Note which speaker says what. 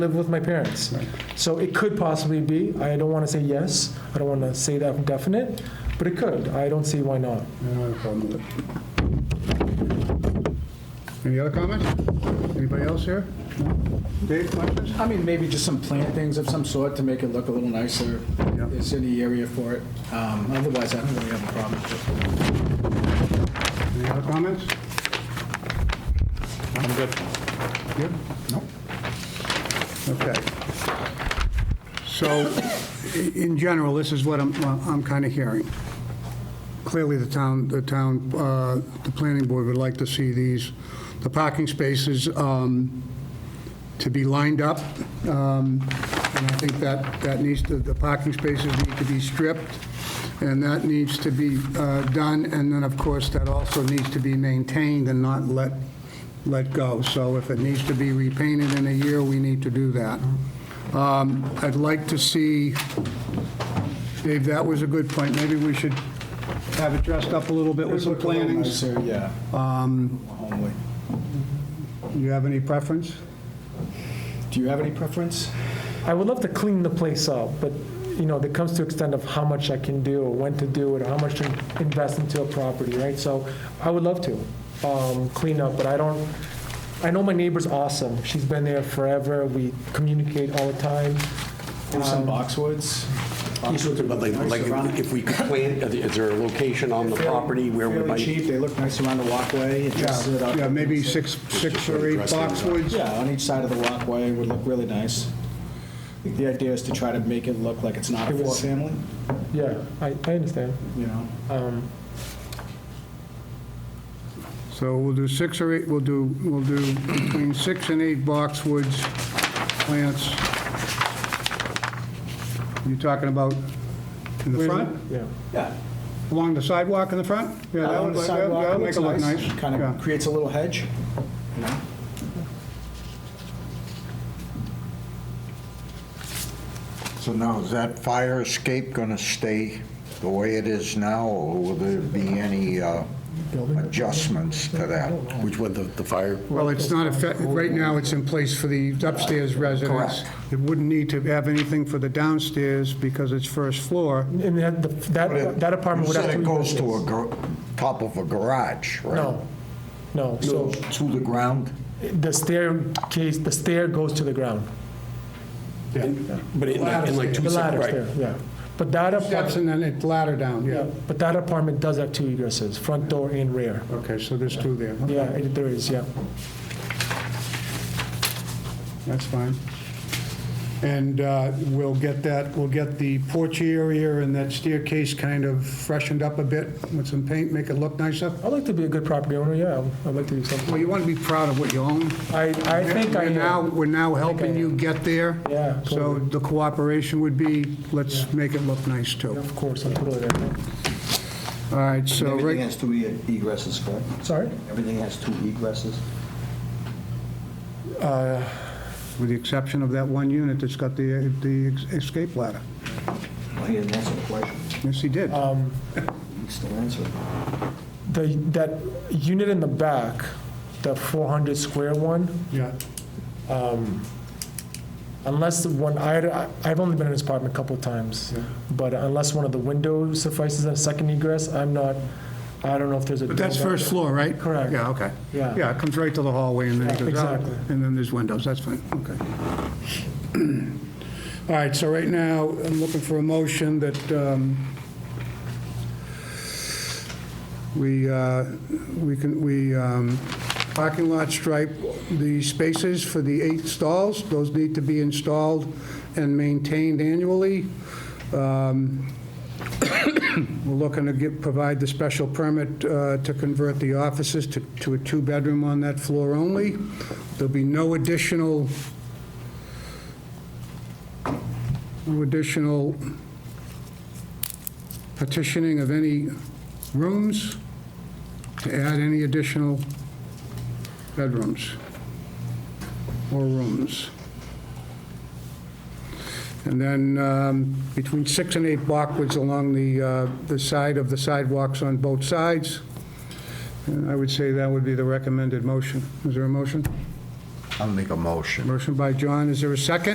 Speaker 1: live with my parents. So it could possibly be, I don't want to say yes, I don't want to say that definite, but it could. I don't see why not.
Speaker 2: I don't have a problem with it. Any other comments? Anybody else here? No? Dave, questions?
Speaker 3: I mean, maybe just some plantings of some sort to make it look a little nicer.
Speaker 2: Yeah.
Speaker 3: Is any area for it? Um, Otherwise, I don't really have a problem with it.
Speaker 2: Any other comments?
Speaker 4: I'm good.
Speaker 2: Good? No? Okay. So, i- in general, this is what I'm, I'm kind of hearing. Clearly, the town, the town, uh, the planning board would like to see these, the parking spaces um, to be lined up. Um, And I think that, that needs to, the parking spaces need to be stripped, and that needs to be uh, done. And then, of course, that also needs to be maintained and not let, let go. So if it needs to be repainted in a year, we need to do that. Um, I'd like to see, Dave, that was a good point. Maybe we should have it dressed up a little bit with some
Speaker 3: Look a little
Speaker 2: plantings.
Speaker 3: nicer, Yeah. Homely.
Speaker 2: You have any preference?
Speaker 3: Do you have any preference?
Speaker 1: I would love to clean the place up, but, you know, that comes to extent of how much I can do, or when to do it, or how much to invest into a property, right? So I would love to um, clean up, but I don't, I know my neighbor's awesome. She's been there forever. We communicate all the time.
Speaker 3: Maybe some boxwoods? Boxwoods
Speaker 4: But
Speaker 3: would
Speaker 4: like,
Speaker 3: look nice
Speaker 4: like
Speaker 3: around-
Speaker 4: if- if we could plant, is there a location on the
Speaker 3: fairly-
Speaker 4: property where we
Speaker 3: Fairly cheap,
Speaker 4: might?
Speaker 3: they look nice around the walkway, it dresses it up.
Speaker 2: Yeah, maybe six, six or eight boxwoods?
Speaker 3: Yeah, on each side of the walkway would look really nice. I think The idea is to try to make it look like it's not a
Speaker 1: It was-
Speaker 3: four-family,
Speaker 1: Yeah, I, I understand.
Speaker 3: you know?
Speaker 1: Um,
Speaker 2: So we'll do six or eight, we'll do, we'll do between six and eight boxwoods plants. You talking about in the
Speaker 1: where's
Speaker 2: front,
Speaker 1: Yeah.
Speaker 3: Yeah.
Speaker 2: along the sidewalk in the front? Yeah, that
Speaker 3: Along
Speaker 2: would,
Speaker 3: the
Speaker 2: that
Speaker 3: sidewalk,
Speaker 2: would
Speaker 3: looks
Speaker 2: make it look nice.
Speaker 3: Kind
Speaker 2: Yeah.
Speaker 3: of creates a little hedge, you know?
Speaker 5: So now, is that fire escape going to stay the way it is now, or will there be any uh, adjustments to that?
Speaker 4: Which one, the, the fire?
Speaker 2: Well, it's not, affect- right now, it's in place for the upstairs residents. It wouldn't need to have anything for the downstairs because it's first floor.
Speaker 1: And that, the- that that apartment would have to.
Speaker 5: You said
Speaker 1: be
Speaker 5: it goes to a,
Speaker 1: replaced.
Speaker 5: gar- top of a garage, right?
Speaker 1: No, no. So
Speaker 5: So to the ground?
Speaker 1: the staircase, the stair goes to the ground.
Speaker 4: But in like in like two
Speaker 1: The ladder
Speaker 4: separate, right?
Speaker 1: stair, yeah. But that
Speaker 2: Steps
Speaker 1: apartment,
Speaker 2: and then it ladder down, yeah.
Speaker 1: but that apartment does have two egresses, front door and rear.
Speaker 2: Okay, so there's two there.
Speaker 1: Yeah, it- there is, yeah.
Speaker 2: That's fine. And uh, we'll get that, we'll get the porch area and that staircase kind of freshened up a bit with some paint, make it look nicer.
Speaker 1: I'd like to be a good property owner, yeah, I'd like to do
Speaker 2: Well,
Speaker 1: something.
Speaker 2: you want to be proud of what you own.
Speaker 1: I, I think I
Speaker 2: We're now,
Speaker 1: am.
Speaker 2: we're now helping
Speaker 1: am.
Speaker 2: you get there.
Speaker 1: Yeah,
Speaker 2: So
Speaker 1: totally.
Speaker 2: the cooperation would be, let's make it look nice, too.
Speaker 1: Of course, I'm totally there.
Speaker 2: All right, so
Speaker 6: Everything
Speaker 2: right,
Speaker 6: has two e- egresses, correct?
Speaker 1: Sorry?
Speaker 6: Everything has two egresses?
Speaker 2: with the exception of that one unit that's got the, the escape ladder.
Speaker 6: Well, he didn't answer the question.
Speaker 2: Yes, he did.
Speaker 1: Uh,
Speaker 6: He still answered.
Speaker 1: The, that unit in the back, the 400 square one,
Speaker 2: Yeah.
Speaker 1: Unless the one, I, I've only been in this apartment a couple of times, but unless one of the windows suffices as second egress, I'm not, I don't know if there's a.
Speaker 2: But that's first floor, right?
Speaker 1: Correct.
Speaker 2: Yeah, okay.
Speaker 1: Yeah.
Speaker 2: Yeah, it comes right to the hallway and then it goes out.
Speaker 1: Exactly.
Speaker 2: And then there's windows, that's fine, okay. All right, so right now, I'm looking for a motion that um, we, uh, we can, we, um, parking lot stripe the spaces for the eight stalls. Those need to be installed and maintained annually. We're looking to give, provide the special permit uh, to convert the offices to, to a two-bedroom on that floor only. There'll be no additional, no additional partitioning of any rooms to add any additional bedrooms or rooms. And then um, between six and eight blockwoods along the, uh, the side of the sidewalks on both sides. And I would say that would be the recommended motion. Is there a motion?
Speaker 5: I'll make a motion.
Speaker 2: Motion by John, is there a second?